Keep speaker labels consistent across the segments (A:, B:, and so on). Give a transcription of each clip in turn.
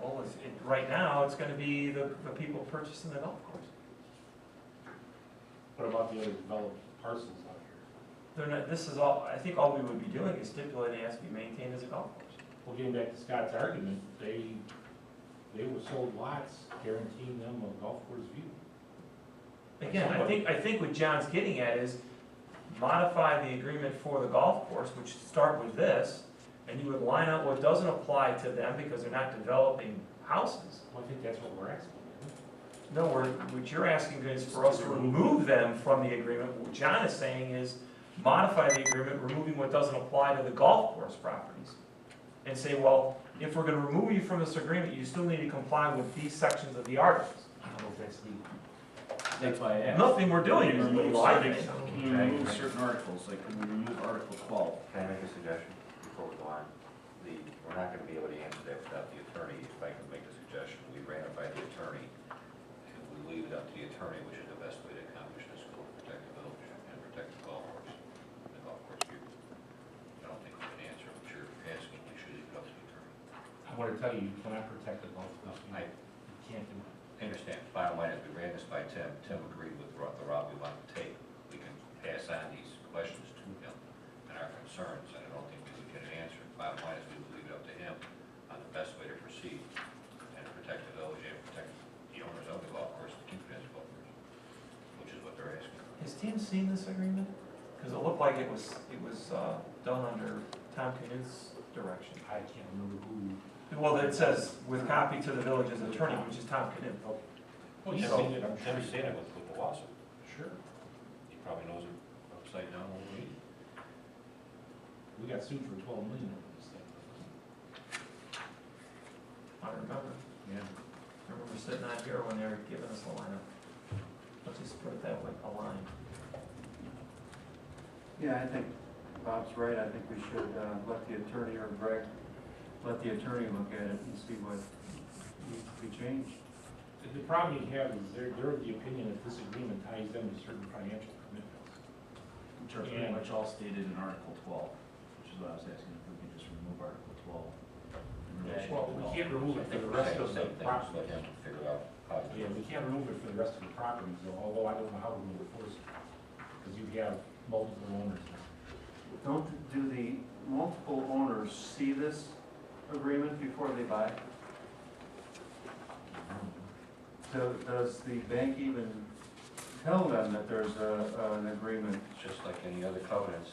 A: well, it's, it, right now, it's gonna be the, the people purchasing the golf course.
B: What about the other developed parcels out here?
A: They're not, this is all, I think all we would be doing is stipulating it has to be maintained as a golf course.
B: Well, getting back to Scott's argument, they, they were sold lots guaranteeing them a golf course view.
A: Again, I think, I think what John's getting at is modify the agreement for the golf course, which should start with this, and you would line out what doesn't apply to them because they're not developing houses.
B: Well, I think that's what we're asking. isn't it?
A: No, we're, what you're asking is for us to remove them from the agreement. What John is saying is modify the agreement, removing what doesn't apply to the golf course properties. And say, well, if we're gonna remove you from this agreement, you still need to comply with these sections of the articles.
B: I don't know if that's legal.
C: That's why I asked.
A: Nothing we're doing is
C: Remove
A: illegal, I think.
C: certain-
D: Can we remove certain articles, like can we remove Article twelve?
E: Can I make a suggestion before we go on? The, we're not gonna be able to answer that without the attorney. If I could make a suggestion, we ran it by the attorney, and we leave it up to the attorney, which is the best way to accomplish this goal, protect the village and protect the golf course, and the golf course people. I don't think we can answer, I'm sure if you're asking, we should leave it up to the attorney.
B: I want to tell you, you cannot protect the golf course. view.
E: I
B: You can't do it.
E: I understand, bottom line is, we ran this by Tim, Tim agreed with ro- the route we want to take. We can pass on these questions to him and our concerns, and I don't think we would get an answer. Bottom line is, we would leave it up to him on the best way to proceed and protect the village and protect the owners of the golf course, the keepers of the golf course, which is what they're asking.
A: Has Tim seen this agreement? Because it looked like it was, it was uh, done under Tom Knuth's direction.
B: I can't remember who.
A: Well, it says with copy to the village's attorney, which is Tom Knuth.
B: Well,
E: Tim's
B: you've
E: seen
B: seen it, I'm sure.
E: Tim's seen it with with the lawsuit.
B: Sure.
E: He probably knows it upside down when we meet.
B: We got sued for twelve million over this thing.
A: I remember.
B: Yeah.
A: I remember sitting out here when they were giving us a lineup. Let's just put it that way, a line.
D: Yeah, I think Bob's right, I think we should uh, let the attorney or Greg, let the attorney look at it and see what needs to be changed.
B: The problem you have is they're, they're of the opinion that this agreement ties them to certain financial commitments.
C: Which are pretty much all stated in Article twelve, which is what I was asking, if we can just remove Article twelve. in relation to
B: Well,
C: the
B: we
C: golf
B: can't remove it for the rest of the
E: Same thing, so
B: property.
E: let him figure out how to do
B: Yeah,
E: it.
B: we can't remove it for the rest of the properties, though, although I don't know how we're gonna enforce it, because you have multiple owners.
D: Don't, do the multiple owners see this agreement before they buy? So does the bank even tell them that there's a, an agreement?
E: Just like any other covenants,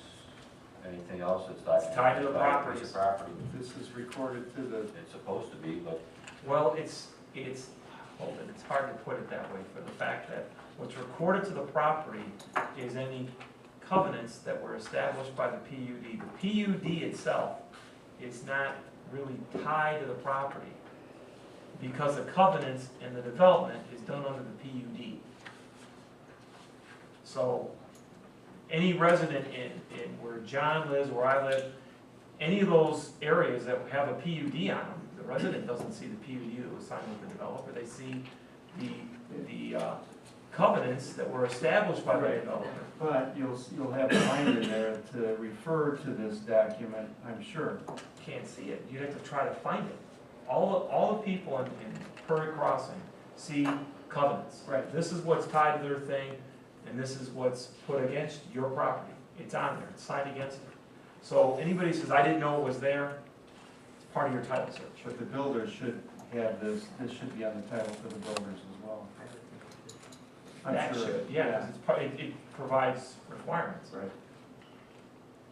E: anything else that's not.
A: It's tied to the
E: property.
A: properties.
E: property.
D: This is recorded to the,
E: It's supposed to be, but
A: Well, it's, it's, hold it, it's hard to put it that way for the fact that what's recorded to the property is any covenants that were established by the PUD. The PUD itself is not really tied to the property because the covenants and the development is done under the PUD. So any resident in, in where John lives, where I live, any of those areas that have a PUD on them, the resident doesn't see the PUD that was signed with the developer, they see the, the uh, covenants that were established by the
D: Right.
A: developer.
D: but you'll, you'll have a line in there to refer to this document, I'm sure.
A: Can't see it, you'd have to try to find it. All, the- all the people in, in Prairie Crossing see covenants.
D: Right.
A: This is what's tied to their thing, and this is what's put against your property. It's on there, it's signed against it. So anybody who says, I didn't know it was there, it's part of your title search.
D: But the builder should have this, this should be on the title for the builders as well. I'm
A: That
D: sure.
A: should, yeah, 'cause it's, pro- it, it provides requirements.
D: Right.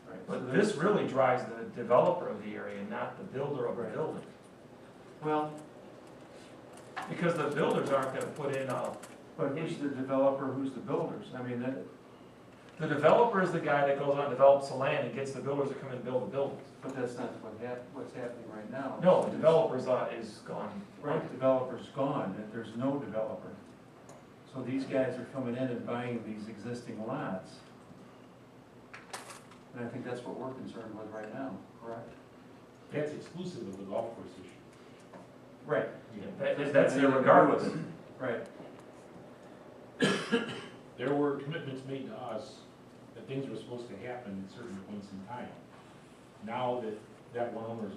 D: Right. So
A: But
D: there's-
A: this really drives the developer of the area, not the builder of the
D: Right.
A: building.
D: Well,
A: Because the builders aren't gonna put in a,
D: but who's the developer, who's the builders? I mean, that,
A: the developer is the guy that goes out and develops the land and gets the builders to come in and build the buildings.
D: but that's not what hap, what's happening right now.
A: No, the developer's, uh, is gone.
D: Right, developer's gone, that there's no developer. So these guys are coming in and buying these existing lots. And I think that's what we're concerned with right now, correct?
B: That's exclusive of the golf course issue.
D: Right.
A: Yeah, that- that's there regardless.
D: Right,
B: There were commitments made to us that things were supposed to happen at certain points in time. Now that that one owner's